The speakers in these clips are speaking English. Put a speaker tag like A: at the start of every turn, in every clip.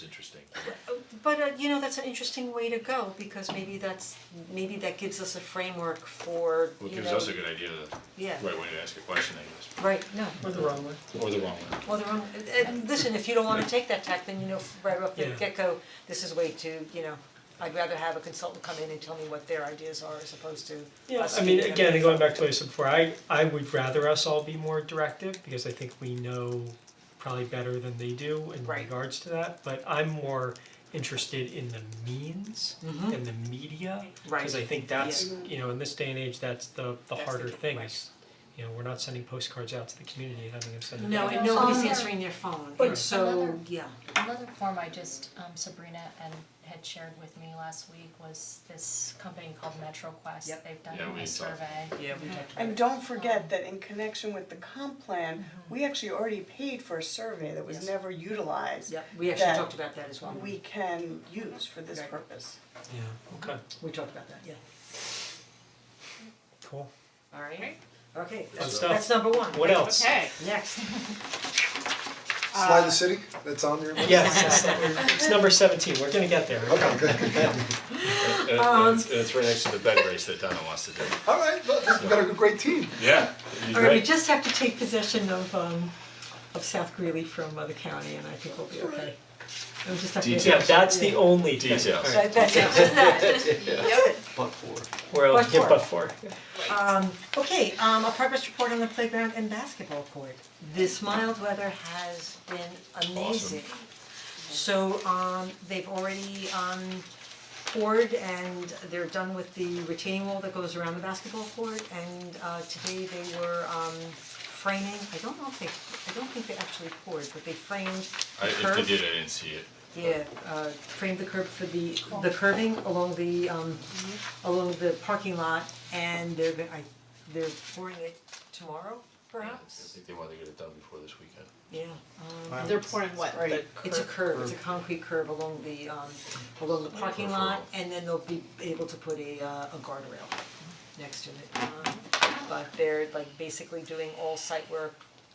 A: It's interesting.
B: But uh you know, that's an interesting way to go because maybe that's, maybe that gives us a framework for,
A: Well, it
B: you
A: gives
B: know,
A: us a good idea of the
B: Yeah.
A: right way to ask a question, I
B: right, no.
C: Or the wrong way.
A: guess, or the wrong one.
B: Well, they're on, and- and uh, listen, if you don't wanna take that tack, then you know right off the
C: Yeah.
B: get-go, this is way too, you know, I'd rather have a consultant come in and tell me what their ideas are as opposed to
C: Yeah,
B: us
C: I mean,
B: speaking.
C: again, going back to what I said before, I, I would rather us all be more directive, because I think we know probably better than they do in
B: Right.
C: regards to that, but I'm more interested in the means
B: Mhm.
C: and the media,
B: Mm-hmm, Right.
C: cause I think that's, you know, in this day and age, that's the, the
B: That's the
C: harder
B: key,
C: thing
B: right.
C: is, you know, we're not sending postcards out to the community and having them send it
B: No,
C: back.
B: and nobody's
D: Um,
B: answering their phone,
D: but
B: and so,
D: another-
B: yeah,
D: Another form I just, um, Sabrina and had shared with me last week was this company called MetroQuest.
B: Yep.
D: They've done
A: Yeah, we
D: a
A: saw that.
D: survey.
B: yeah, we talked
E: And don't forget that in connection with the comp plan, we actually already paid for a survey that
B: Yes.
E: was never utilized.
B: yeah, we actually
E: that
B: talked about that as well,
E: We can use for this
B: Right.
E: purpose.
C: Yeah, okay,
B: we talked about that, yeah,
C: cool,
B: alright, okay,
C: good
B: that's
C: stuff,
B: that's number one,
C: what else?
F: Okay,
B: next,
G: Fly the City, that's on your list?
C: Yes, it's number- it's number seventeen, we're gonna get there,
G: Okay, good, good, good.
B: Uh,
A: And it-
B: um,
A: and it's, and it's right next to the bed race that Donna wants to do.
G: All right, well, you got a great team.
A: Yeah, you're
B: Alright, we
A: right.
B: just have to take possession of um of South Greeley from uh, the county and I think we'll be okay. We just have to.
A: Details.
C: Yeah, that's the only thing.
A: Details.
C: All right.
B: That- that's it, just that.
C: We're all
B: But
C: yeah,
B: for-
C: but for.
B: Um okay, um a progress report on the playground and basketball court. This mild weather has been amazing. So um they've already um poured and they're done with the retaining wall that goes around the basketball court and uh today they were um framing, I don't know if they, I don't think they actually poured, but they framed
A: I,
B: the
A: if
B: curb.
A: they did, I didn't see it.
B: Yeah, uh frame the curb for the the curving along the um along the parking lot and they're go- I they're pouring it tomorrow
A: I
B: perhaps?
A: think they wanted to get it done before this weekend.
B: Yeah, um
F: they're pouring what, the
E: Right.
B: it's a
F: curb?
B: curb, it's a concrete curb along the um along the parking lot and then they'll be able to put a uh a guardrail next to it. Um, But they're like basically doing all site work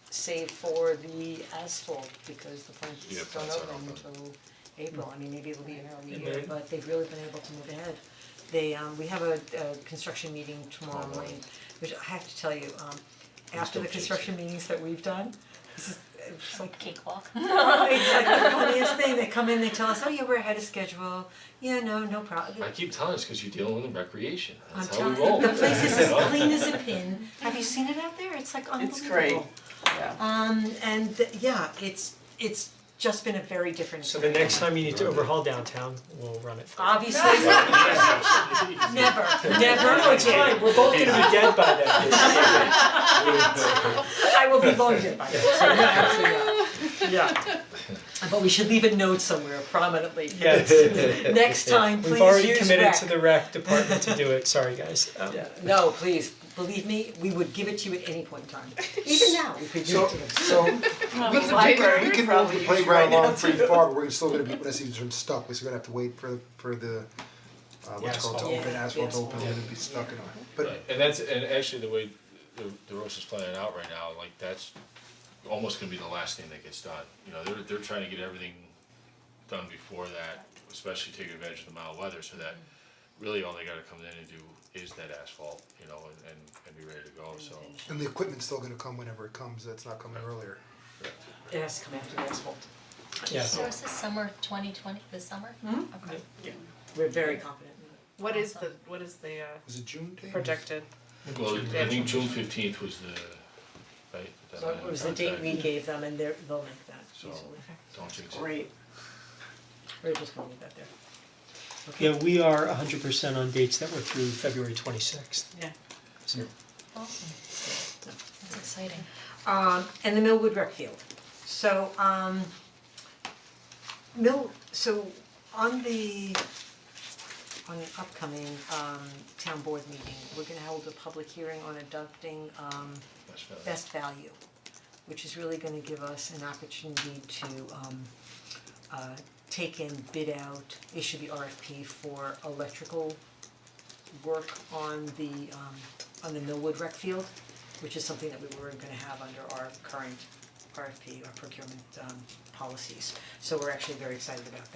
B: save for the asphalt because the
A: Yeah,
B: plants don't
A: plants aren't
B: open
A: open.
B: until April, I mean, maybe it'll be an early
C: And
B: year,
C: they-
B: but they've really been able to move ahead. They um, we have a a construction meeting tomorrow morning, which I have to tell you, um after the
A: don't jinx
B: construction meetings that we've done, this is, it's like
D: Cakewalk.
B: it's like the funniest thing, they come in, they tell us, oh yeah, we're ahead of schedule, yeah, no, no problem.
A: I keep telling us because you're dealing with recreation.
B: I'm
A: That's how
B: telling
A: we roll.
B: you, the place is as
A: You know?
B: clean as a pin, have you seen it out there? It's like unbelievable.
E: It's great, yeah.
B: Um, and th- yeah, it's, it's just been a very different
C: So
B: experience.
C: the next time you need to overhaul downtown, we'll run it.
B: Obviously, never, never
C: No, it's
B: again.
C: fine, we're both gonna be dead by then.
B: I will be voted by that, so no, absolutely not.
C: Yeah,
B: But we should leave a note somewhere prominently. for
C: yes.
B: Next time, please use
C: We've already committed
B: rec.
C: to the rec department to do it, sorry guys. Um,
B: No, please, believe me, we would give it to you at any point in time. Even now, we could give
G: So,
B: it to them.
G: so, we can, we can move the playground along pretty far, but we're still gonna be, when I see this room stuck, we're still gonna have to wait for, for the, uh, what's it called, to
C: Asphalt.
G: open,
B: Yeah,
G: asphalt to open,
B: asphalt.
G: and it'd be stuck in a, but
A: Right, and that's, and actually the way the the roast is planning out right now, like that's almost gonna be the last thing that gets done. You know, they're they're trying to get everything done before that, especially taking advantage of the mild weather, so that really all they gotta come in and do is that asphalt, you know, and and and be ready to go, so.
G: And the equipment's still gonna come whenever it comes, that's not coming earlier.
B: It has to come after the asphalt.
C: Yeah,
D: So is this summer twenty twenty, this summer? Okay.
B: We're very confident.
F: What is the, what is the uh,
G: Was it June day?
F: projected?
A: Well, I think June fifteenth was the, right? the
B: So it was the date we
A: contract,
B: gave them and they're, they'll make that
A: So-
B: easily.
A: Don't jinx it.
E: Great,
B: We're just gonna leave that there.
C: yeah, we are hundred percent on dates that were through February twenty-sixth.
F: Yeah.
C: So,
D: Awesome. That's exciting.
B: um, and the Millwood rec field. So, um, Mill, so on the, on the upcoming, um, town board meeting, we're gonna hold a public hearing on adopting, um,
A: That's fine.
B: best value, which is really gonna give us an opportunity to, um, uh, take in, bid out, issue the RFP for electrical work on the, um, on the Millwood rec field which is something that we were gonna have under our current RFP or procurement um policies. So we're actually very excited about that.